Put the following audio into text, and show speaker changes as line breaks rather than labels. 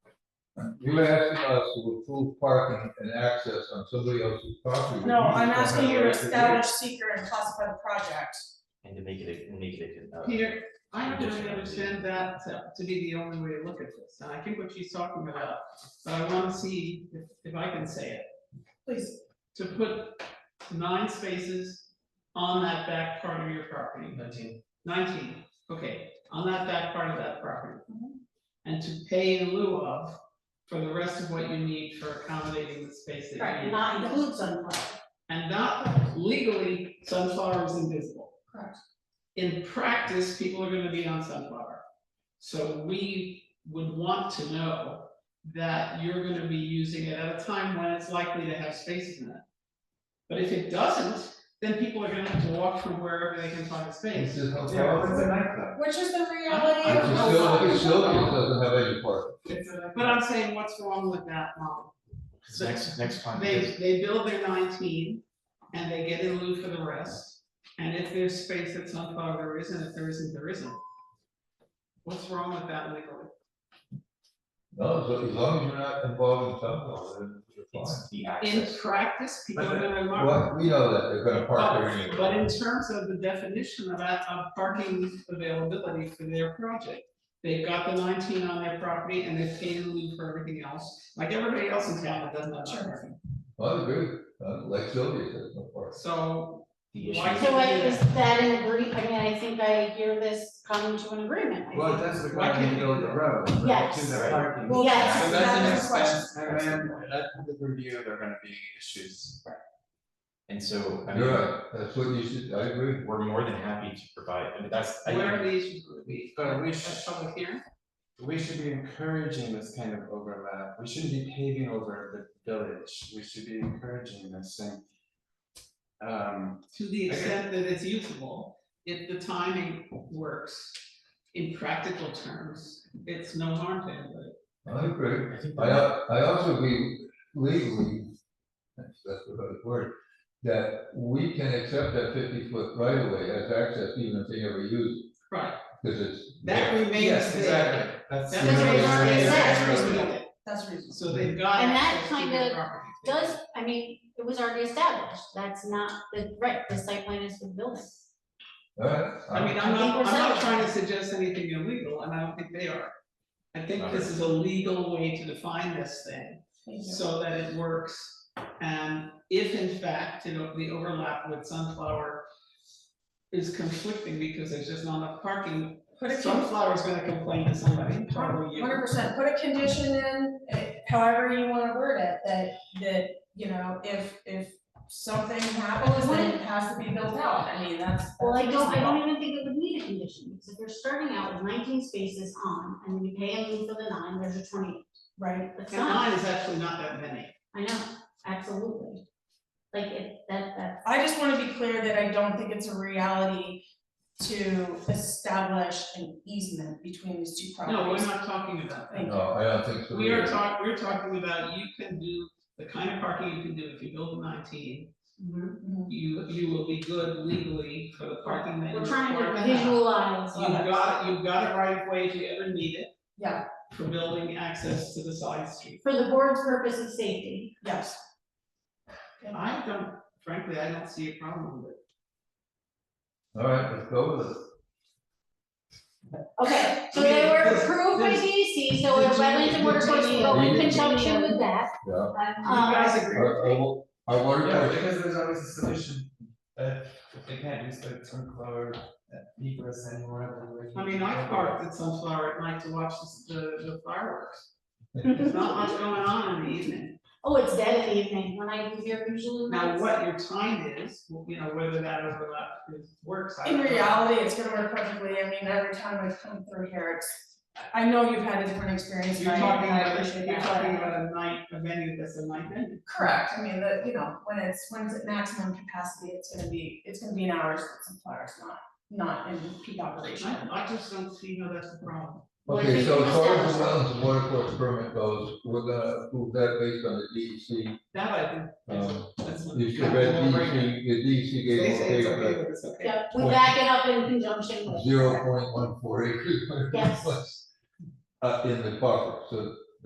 You're asking us to approve parking and access on somebody else's property.
No, I'm
We don't
asking
have
you
a
to
right do it.
establish seeker and classify the project.
and to make it, a- make it. a- uh,
Peter, I don't really
Conditional.
understand that to, to be the only way to look at this, and I think what she's talking about, but I wanna see if, if I can say it.
Please,
To put nine spaces on that back part of your property,
Nineteen.
nineteen, okay, on that back part of that property.
Mhm.
And to pay in lieu of for the rest of what you need for accommodating the space that you need.
right, and not include sunflower.
And not legally, sunflower is invisible.
Correct.
In practice, people are gonna be on sunflower. So we would want to know that you're gonna be using it at a time when it's likely to have space in it. But if it doesn't, then people are gonna have to walk from wherever they can find a
This
space.
is how.
Yeah, well, it's a nightclub.
Which is the reality
Our
of.
facility, facility doesn't have any parking.
But I'm saying, what's wrong with that model? So-
Next, next time.
They, they build their nineteen and they get in lieu for the rest. And if there's space at Sunflower, there isn't, if there isn't, there isn't. What's wrong with that legally?
No, so as long as you're not involved in something, then
It's the
In
access.
practice, people are
But
gonna
you're fine.
mark.
Well, we know that, they're gonna park there anyway.
But in terms of the definition of, that- of parking availability for their project, they've got the nineteen on their property and they've paid in lieu for everything else. Like everybody else in town that doesn't have
Sure.
parking.
Oh, I agree, uh, like Sylvia says, no parking.
So
The issue.
Why-
So like, is that an agree, I mean, I think I hear this come to an agreement. I
Well,
think.
that's the
Why
question,
can't
you go to
you-
the road, right, to
Yes.
the parking.
Well,
Yes.
that's
So that's the
another
next
question.
question, and then, that, the review, there are gonna be issues.
And so, I
You're
mean,
right, that's what you should, I agree.
we're more than happy to provide, I mean, that's. I-
where are the issues gonna be?
But we
At
should,
public hearing?
we should be encouraging this kind of overlap, we shouldn't be paving over the village, we should be encouraging this thing. Um,
To the
Okay.
extent that it's usable, if the timing works, in practical terms, it's no harm to anybody.
I agree.
I think
I,
that-
al- I also agree legally, that's, that's the right word, that we can accept that fifty foot right of way as access even if they never use it,
Right,
because it's.
that remains
yes,
there.
exactly, that's.
That
Yeah.
remains there.
Yeah. Yeah.
That's reasonable.
That's reasonable.
So they've got.
And that
access to
kind
their
of
property.
Does, I mean, it was already established, that's not the, right, the site plan is the building.
Alright,
I mean,
I-
I'm
I
not,
think we're
I'm not
satisfied.
trying to suggest anything illegal, and I don't think they are. I think this is a legal way to define this thing,
Thank you.
so that it works. And if in fact, you know, the overlap with Sunflower is conflicting because there's just not enough parking,
Put a con-
Sunflower's gonna complain to somebody, probably you.
hundred percent, put a condition in, eh, however you wanna word it, that, that, you know, if, if something happens, then it has to be built out, I mean, that's.
Well, I
that's
don't, I
reasonable.
don't even think it would need a condition, because if we're starting out with nineteen spaces on, and then you pay a fee for the nine, there's a twenty,
Right,
that's
And
not,
mine is actually not that many.
I know, absolutely. Like, if, that, that's.
I just wanna be clear that I don't think it's a reality to establish an easement between these two
No, we're
properties.
not talking about that.
Thank
no, I don't think so.
We are
either.
talking, we're talking about you can do the kind of parking you can do if you build a nineteen.
Mm-hmm.
Mhm.
You, you will be good legally for the parking that you
We're
require.
trying to
have.
visualize.
You've got, you've got a right of way if you ever need it
Yeah,
for building access to the side street.
For the board's purpose of safety,
yes,
I don't, frankly, I don't see a problem with it.
Alright, let's go with it.
okay, so
I mean,
they were
this-
approved by
this-
DEC, so if
this-
wetlands and water courses go in
this-
conjunction with that,
Yeah.
You
Um,
guys agree
Our,
with me?
our, our water
Yeah,
tower,
because there's always a solution, that if they can't use the sunflower,
uh,
that egress anymore.
I mean, I parked at Sunflower at night to watch the, the fireworks. There's not much going on in the evening.
oh, it's dead in the evening, when I leave here usually.
Now,
it's-
what your time is, well, you know, whether that overlap is works. I
in
don't know.
reality, it's gonna work perfectly, I mean, every time I've come through here, it's, I know you've had a different experience, and
You're
I,
talking
and I
about,
appreciate that.
you're talking about a night, a venue that's a night venue.
Correct, I mean, the, you know, when it's, when it's at maximum capacity, it's gonna be, it's gonna be an hours, but some flowers, not, not in peak operation.
I, I just don't see how that's a problem.
Well, I
okay,
think
so
we've
as far as the wetlands
established that.
and water course permit goes, we're gonna approve that based on the DEC.
That I think,
Um,
that's, that's. what-
You should read
Yeah, we'll break it.
DEC, E the DEC gave
They say
okay
it's
on
okay,
that
but it's okay.
Yeah, we back it up in conjunction with.
zero point one four acres.
Yes.
Uh, in the buffer, so